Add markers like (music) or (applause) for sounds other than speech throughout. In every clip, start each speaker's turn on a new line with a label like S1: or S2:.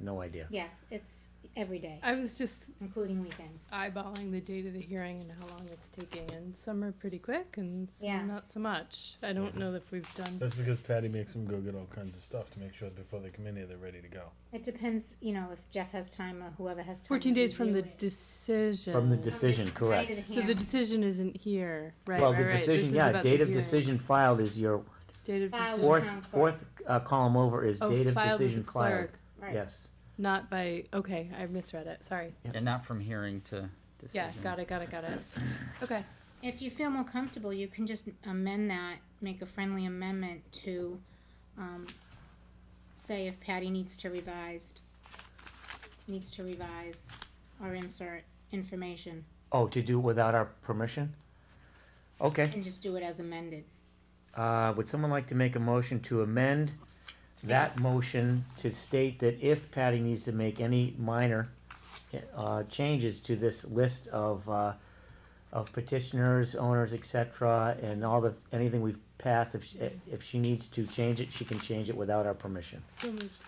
S1: no idea.
S2: Yes, it's every day,
S3: I was just
S2: including weekends.
S3: eyeballing the date of the hearing and how long it's taking, and some are pretty quick and some
S2: Yeah.
S3: not so much. I don't know if we've done.
S4: That's because Patty makes them go get all kinds of stuff to make sure before they come in here they're ready to go.
S2: It depends, you know, if Jeff has time or whoever has time. to
S3: 14 days from the
S2: review it.
S3: decision.
S1: From the decision,
S2: From the day
S1: correct.
S2: to the
S3: So the
S2: hearing.
S3: decision isn't here, right?
S1: Well,
S3: right,
S1: the
S3: right. This
S1: decision,
S3: is
S1: yeah,
S3: about
S1: date
S3: the
S1: of
S3: hearing.
S1: decision filed is your,
S3: Date of
S2: Filed
S3: decision.
S1: fourth,
S2: town clerk.
S1: fourth uh, column over is
S3: Oh,
S1: date of
S3: filed with
S1: decision
S3: the
S1: filed.
S3: clerk,
S2: Right.
S1: Yes.
S3: Not by, okay, I misread it, sorry.
S5: And not from hearing to
S3: Yeah,
S5: decision.
S3: got it, got it, got it. Okay,
S2: If you feel more comfortable, you can just amend that, make a friendly amendment to, um, say if Patty needs to revised, needs to revise or insert information,
S1: Oh, to do it without our permission? Okay,
S2: and just do it as amended.
S1: uh, would someone like to make a motion to amend that motion to state that if Patty needs to make any minor, uh, changes to this list of, uh, of petitioners, owners, et cetera, and all the, anything we've passed, if, she- if she needs to change it, she can change it without our permission.
S3: so moved.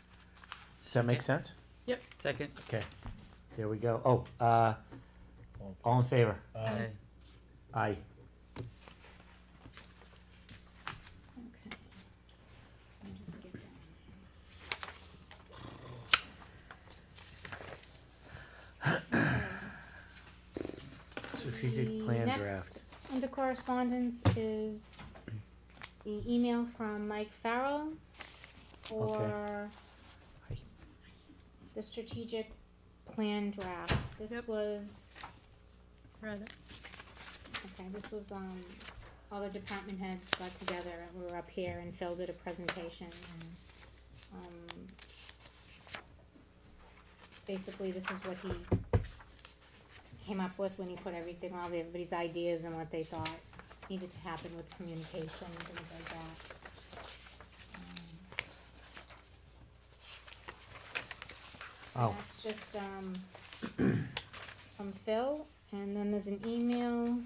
S1: Does that make sense?
S5: Second.
S1: Okay, there we go. Oh, uh, all in favor?
S4: Um,
S5: Aye.
S1: Aye.
S2: Okay. I'll just get that.
S1: Strategic
S2: The
S1: plan
S2: next
S1: draft.
S2: Under correspondence is the email from Mike Farrell for
S1: Hi.
S2: the strategic plan draft. This
S3: Yep.
S2: was,
S3: Read it.
S2: okay, this was, um, all the department heads got together and we were up here and Phil did a presentation and, um, basically this is what he came up with when he put everything, all the, everybody's ideas and what they thought needed to happen with communication and things like that. Um, and
S1: Oh,
S2: That's just, um, from Phil, and then there's an email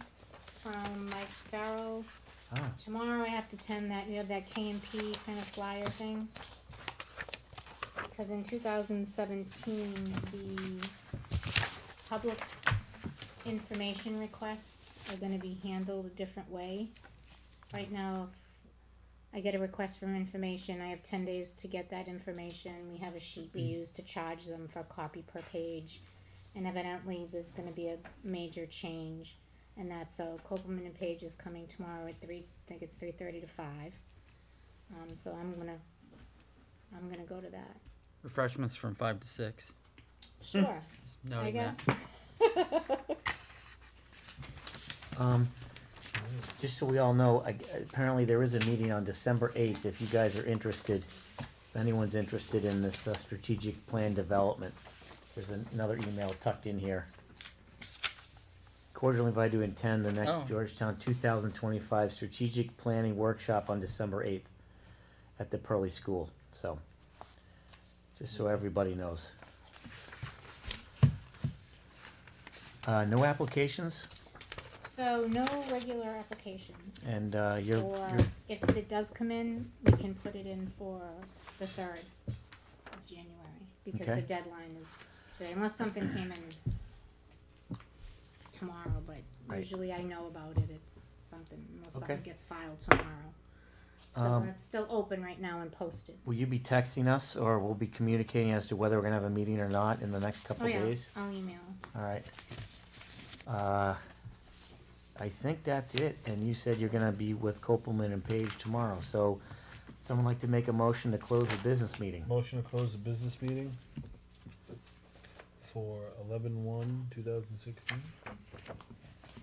S2: from Mike Farrell.
S1: ah,
S2: Tomorrow I have to attend that, you have that K and P kind of flyer thing. Cause in two thousand seventeen, the public information requests are gonna be handled a different way. Right now, I get a request for information, I have ten days to get that information, we have a sheet we use to charge them for a copy per page. And evidently, there's gonna be a major change and that's so Copeland and Page is coming tomorrow at three. I think it's three thirty to five. Um, so I'm gonna, I'm gonna go to that.
S5: Refreshments from five to six.
S2: Sure,
S5: Just
S2: I
S5: noting
S2: guess.
S5: that.
S1: um, just so we all know, I- apparently there is a meeting on December eighth, if you guys are interested. If anyone's interested in this uh, strategic plan development, there's an- another email tucked in here. Cordially invited to attend the
S5: Oh.
S1: next Georgetown two thousand twenty-five strategic planning workshop on December eighth at the Pearly School, so. Just so everybody knows. Uh, no applications?
S2: (laughs) So no regular applications.
S1: And uh, you're,
S2: or
S1: you're
S2: if it does come in, we can put it in for the third of January because
S1: Okay.
S2: the deadline is today. Unless something came in tomorrow, but
S1: Right.
S2: usually I know about it. It's something unless something
S1: Okay.
S2: gets filed tomorrow. So
S1: Um,
S2: that's still open right now and posted.
S1: will you be texting us, or we'll be communicating as to whether we're gonna have a meeting or not in the next
S2: Oh
S1: couple
S2: yeah,
S1: days?
S2: I'll email.
S1: All right. Uh, I think that's it. And you said you're gonna be with Copelman and Page tomorrow. So, someone like to make a motion to close the business meeting?
S4: Motion to close the business meeting for eleven one, two thousand sixteen.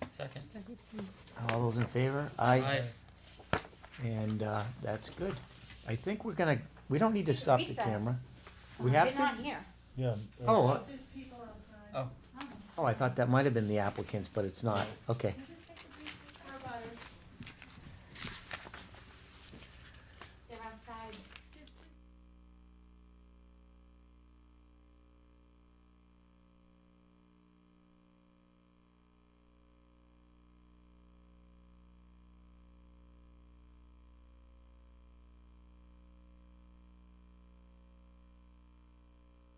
S5: Second.
S1: All those in favor? Aye. And uh, that's good. I think we're gonna. We don't need to stop the camera.
S2: Uh,
S1: We have to?
S2: They're not here.
S4: Yeah. uh,
S1: Oh, uh,
S6: There's people outside.
S5: Oh,
S1: oh! I thought that might have been the applicants, but it's not. Okay.